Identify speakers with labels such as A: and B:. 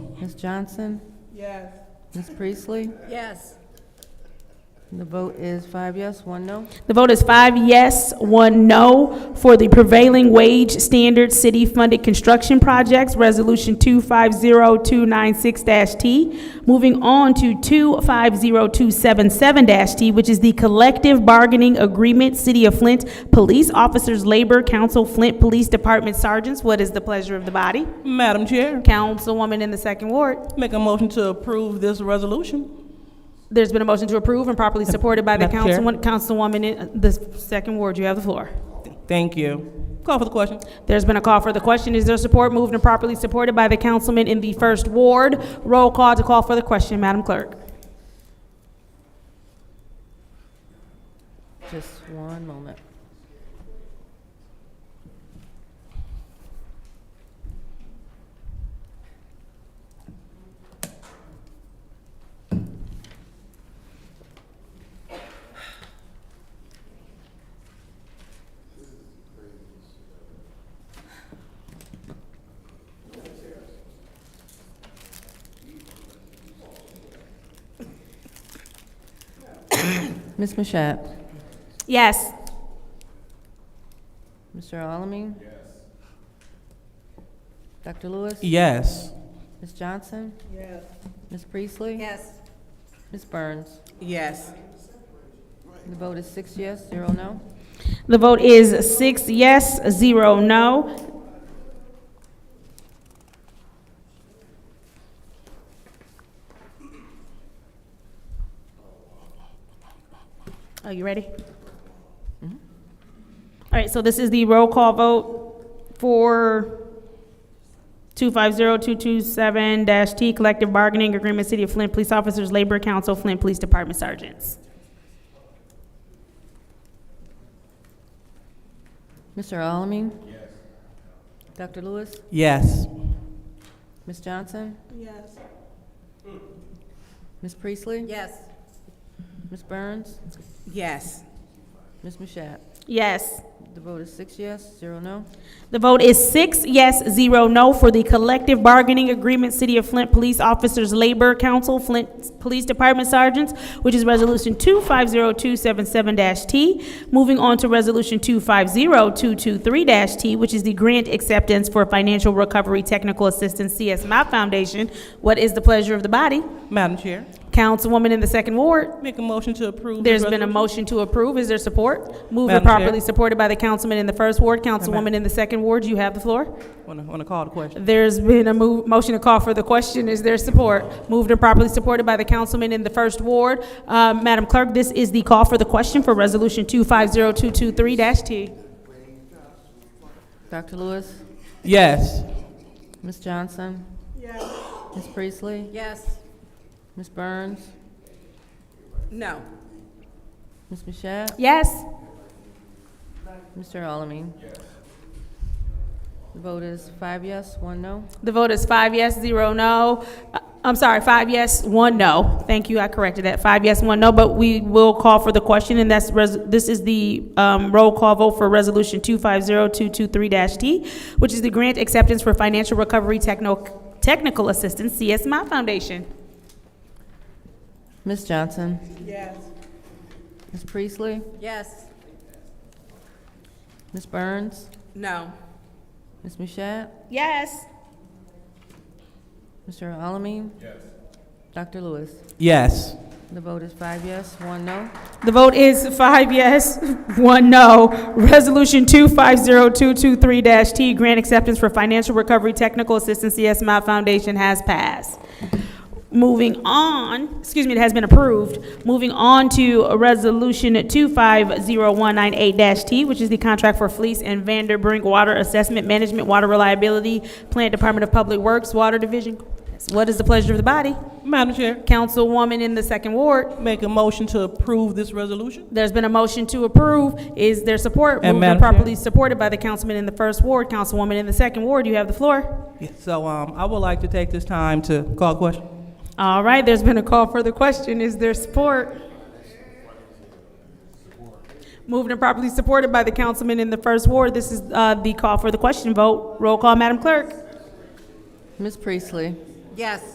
A: Ms. Johnson?
B: Yes.
A: Ms. Priestley?
B: Yes.
A: The vote is five yes, one no.
C: The vote is five yes, one no for the prevailing wage standard city-funded construction projects, Resolution 250296-T. Moving on to 250277-T, which is the collective bargaining agreement, City of Flint, Police Officers Labor Council, Flint Police Department Sergeants. What is the pleasure of the body?
B: Madam Chair,
C: Councilwoman in the second ward.
B: make a motion to approve this resolution.
C: There's been a motion to approve and properly supported by the
B: Madam Chair.
C: councilwoman, councilwoman in the second ward. You have the floor.
B: Thank you. Call for the question.
C: There's been a call for the question. Is there support? Moved and properly supported by the councilman in the first ward. Roll call to call for the question, Madam Clerk.
A: Just one moment. Ms. Mashat?
C: Yes.
A: Mr. Alamin? Yes. Dr. Lewis?
B: Yes.
A: Ms. Johnson? Yes. Ms. Priestley?
D: Yes.
A: Ms. Burns?
D: Yes.
A: The vote is six yes, zero no.
C: The vote is six yes, zero no. Are you ready? All right, so this is the roll call vote for 250227-T Collective Bargaining Agreement, City of Flint Police Officers, Labor Council, Flint Police Department Sergeants.
A: Mr. Alamin? Yes. Dr. Lewis?
B: Yes.
A: Ms. Johnson?
D: Yes.
A: Ms. Priestley?
D: Yes.
A: Ms. Burns?
D: Yes.
A: Ms. Mashat?
C: Yes.
A: The vote is six yes, zero no.
C: The vote is six yes, zero no for the collective bargaining agreement, City of Flint Police Officers Labor Council, Flint Police Department Sergeants, which is Resolution 250277-T. Moving on to Resolution 250223-T, which is the grant acceptance for Financial Recovery Technical Assistance, CS My Foundation. What is the pleasure of the body?
B: Madam Chair,
C: Councilwoman in the second ward?
B: make a motion to approve. this
C: There's been a
B: resolution.
C: motion to approve. Is there support? Moved
B: Madam
C: and
B: Chair.
C: properly supported by the councilman in the first ward. Councilwoman in the second ward, you have the floor.
B: Wanna, wanna call the question?
C: There's been a move, motion to call for the question. Is there support? Moved and properly supported by the councilman in the first ward. Uh, Madam Clerk, this is the call for the question for Resolution 250223-T.
A: Dr. Lewis?
B: Yes.
A: Ms. Johnson? Yes. Ms. Priestley?
D: Yes.
A: Ms. Burns?
D: No.
A: Ms. Mashat?
C: Yes.
A: Mr. Alamin? Yes. The vote is five yes, one no.
C: The vote is five yes, zero no. Uh, I'm sorry, five yes, one no. Thank you, I corrected that. Five yes, one no, but we will call for the question, and that's, res- this is the um, roll call vote for Resolution 250223-T, which is the grant acceptance for financial recovery techno- technical assistance, CS My Foundation.
A: Ms. Johnson?
D: Yes.
A: Ms. Priestley?
D: Yes.
A: Ms. Burns?
D: No.
A: Ms. Mashat?
C: Yes.
A: Mr. Alamin? Yes. Dr. Lewis?
B: Yes.
A: The vote is five yes, one no.
C: The vote is five yes, one no. Resolution 250223-T, grant acceptance for financial recovery technical assistance, CS My Foundation has passed. Moving on, excuse me, it has been approved. Moving on to Resolution 250198-T, which is the contract for Fleece and Vanderbrink Water Assessment Management, Water Reliability, Plant Department of Public Works, Water Division. What is the pleasure of the body?
B: Madam Chair,
C: Councilwoman in the second ward.
B: make a motion to approve this resolution.
C: There's been a motion to approve. Is there support?
B: And
C: Moved and
B: Madam Chair?
C: properly supported by the councilman in the first ward, councilwoman in the second ward. You have the floor.
B: Yes, So, um, I would like to take this time to call the question.
C: All right, there's been a call for the question. Is there support? Moved and properly supported by the councilman in the first ward. This is uh, the call for the question vote. Roll call, Madam Clerk.
A: Ms. Priestley?
D: Yes.